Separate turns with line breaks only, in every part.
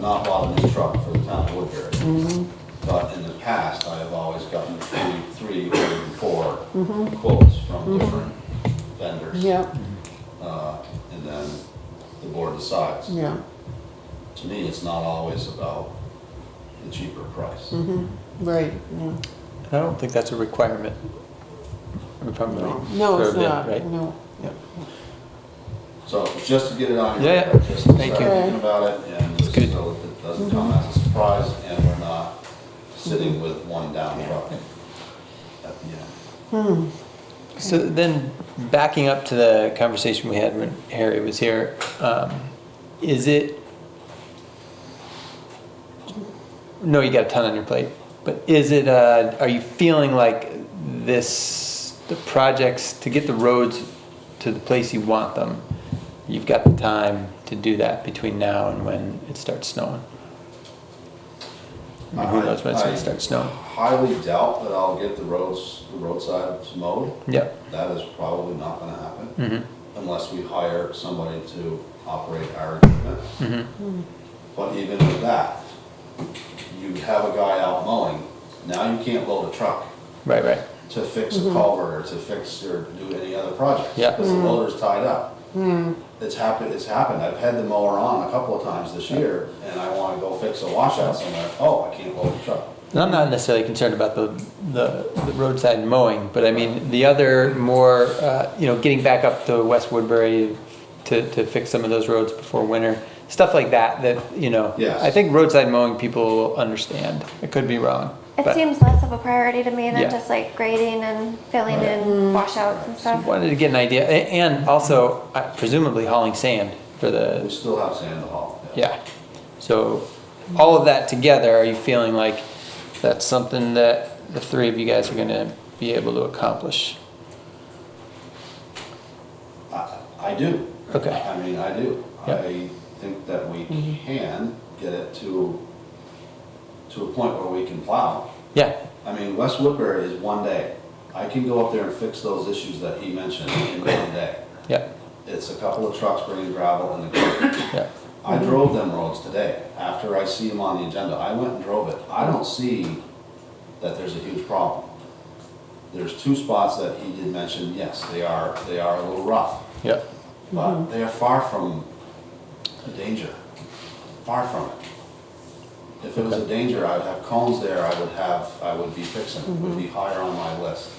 not bought a new truck for the town of Woodbury. But in the past, I have always gotten three, three or even four quotes from different vendors.
yeah,
Uh, And then the board decides.
yeah,
To me, it's not always about the cheaper price.
Mm. mm-hmm, right, yeah.
I don't think that's a requirement. If I'm right.
No, it's
For a bid,
not,
right?
no.
Yeah.
So just to get it on your.
Yeah, yeah.
radar, just to
Thank you.
start Thinking about it, and just
Good.
so it doesn't come as a surprise, and we're not sitting with one down truck at the end.
Hmm,
So then, backing up to the conversation we had when Harry was here, um, is it? No, you got a ton on your plate, but is it? Uh, are you feeling like this? The projects to get the roads to the place you want them. You've got the time to do that between now and when it starts snowing. I mean, who knows when it's
I-
gonna start snowing?
Highly doubt that I'll get the roads, the roadsides mowed.
Yep.
That is probably not gonna happen
Mm-hmm.
unless we hire somebody to operate our equipment.
Mm-hmm.
But even with that, you have a guy out mowing, now you can't load a truck
Right. Right.
to fix a culvert or to fix or do any other project.
Yeah.
Because the loader's tied up. It's happened, it's happened. I've had the mower on a couple of times this year and I wanna go fix a washout somewhere. Oh, I can't load the truck.
And I'm not necessarily concerned about the, the, the roadside mowing, but I mean, the other more, uh, you know, getting back up to West Woodbury to, to fix some of those roads before winter, stuff like that, that, you know.
Yes.
I think roadside mowing people will understand. I could be wrong.
It
but
seems less of a priority to me than
Yeah.
just like grading and filling
Right.
in washouts and stuff.
Wanted to get an idea, A- and also uh, presumably hauling sand for
We
the,
still have sand to haul.
yeah. So all of that together, are you feeling like that's something that the three of you guys are gonna be able to accomplish?
I, I do.
Okay.
I mean, I do.
Yeah.
I think that we can get it to, to a point where we can plow.
Yeah,
I mean, West Woodbury is one day. I can go up there and fix those issues that he mentioned in one day.
yeah,
It's a couple of trucks bringing gravel and the curb.
yeah.
I drove them roads today, after I see them on the agenda, I went and drove it. I don't see that there's a huge problem. There's two spots that he did mention, yes, they are, they are a little rough.
Yeah,
But they are far from a danger, far from it. If it was a danger, I would have cones there, I would have, I would be fixing, it would be higher on my list.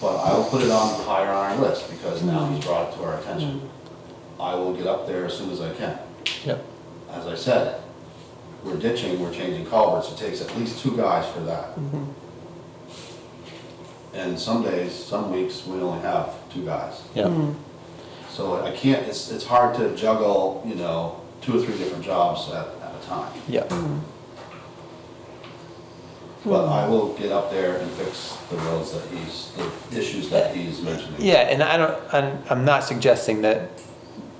But I will put it on higher on our list, because now he's brought it to our attention. I will get up there as soon as I can.
yeah,
As I said, we're ditching, we're changing culverts, it takes at least two guys for that. And some days, some weeks, we only have two guys.
yeah.
So I can't, it's, it's hard to juggle, you know, two or three different jobs at, at a time.
Yeah,
But I will get up there and fix the roads that he's, the issues that he's mentioning.
yeah, and I don't, I'm, I'm not suggesting that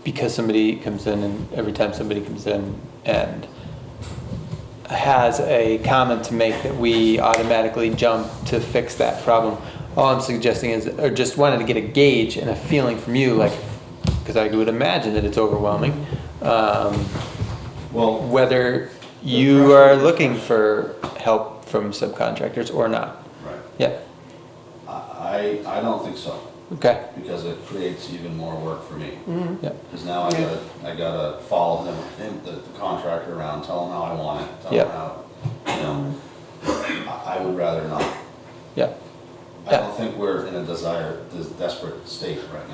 because somebody comes in and every time somebody comes in and has a comment to make that we automatically jump to fix that problem. All I'm suggesting is, or just wanted to get a gauge and a feeling from you, like, because I would imagine that it's overwhelming, um,
Well,
whether you are looking for help from subcontractors or not.
right,
Yeah,
I, I I don't think so,
okay,
because it creates even more work for me.
yeah.
Because now I gotta, I gotta follow him, him, the the contractor around, tell him how I want it, tell him
Yep.
how, you know. I, I would rather not.
Yeah,
I
Yeah.
don't think we're in a desire, this desperate state right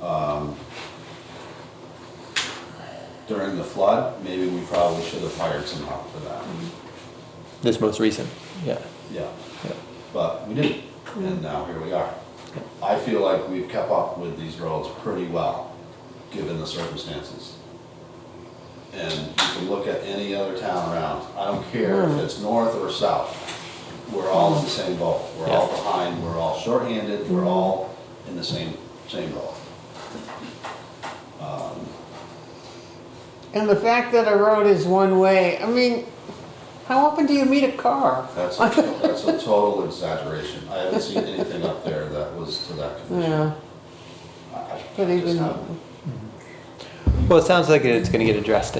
now. Um, During the flood, maybe we probably should have hired some help for that,
this most recent. Yeah,
yeah,
yeah,
but we didn't, and now here we are.
Yeah.
I feel like we've kept up with these roads pretty well, given the circumstances. And you can look at any other town around, I don't care if it's north or south, we're all in the same boat. We're all
Yeah.
behind, we're all shorthanded, we're all in the same, same boat.
And the fact that a road is one way, I mean, how often do you meet a car?
That's, a- that's a total exaggeration. I haven't seen anything up there that was to that condition.
Yeah,
I- I
but
just
even,
haven't.
Well, it sounds like it's gonna get addressed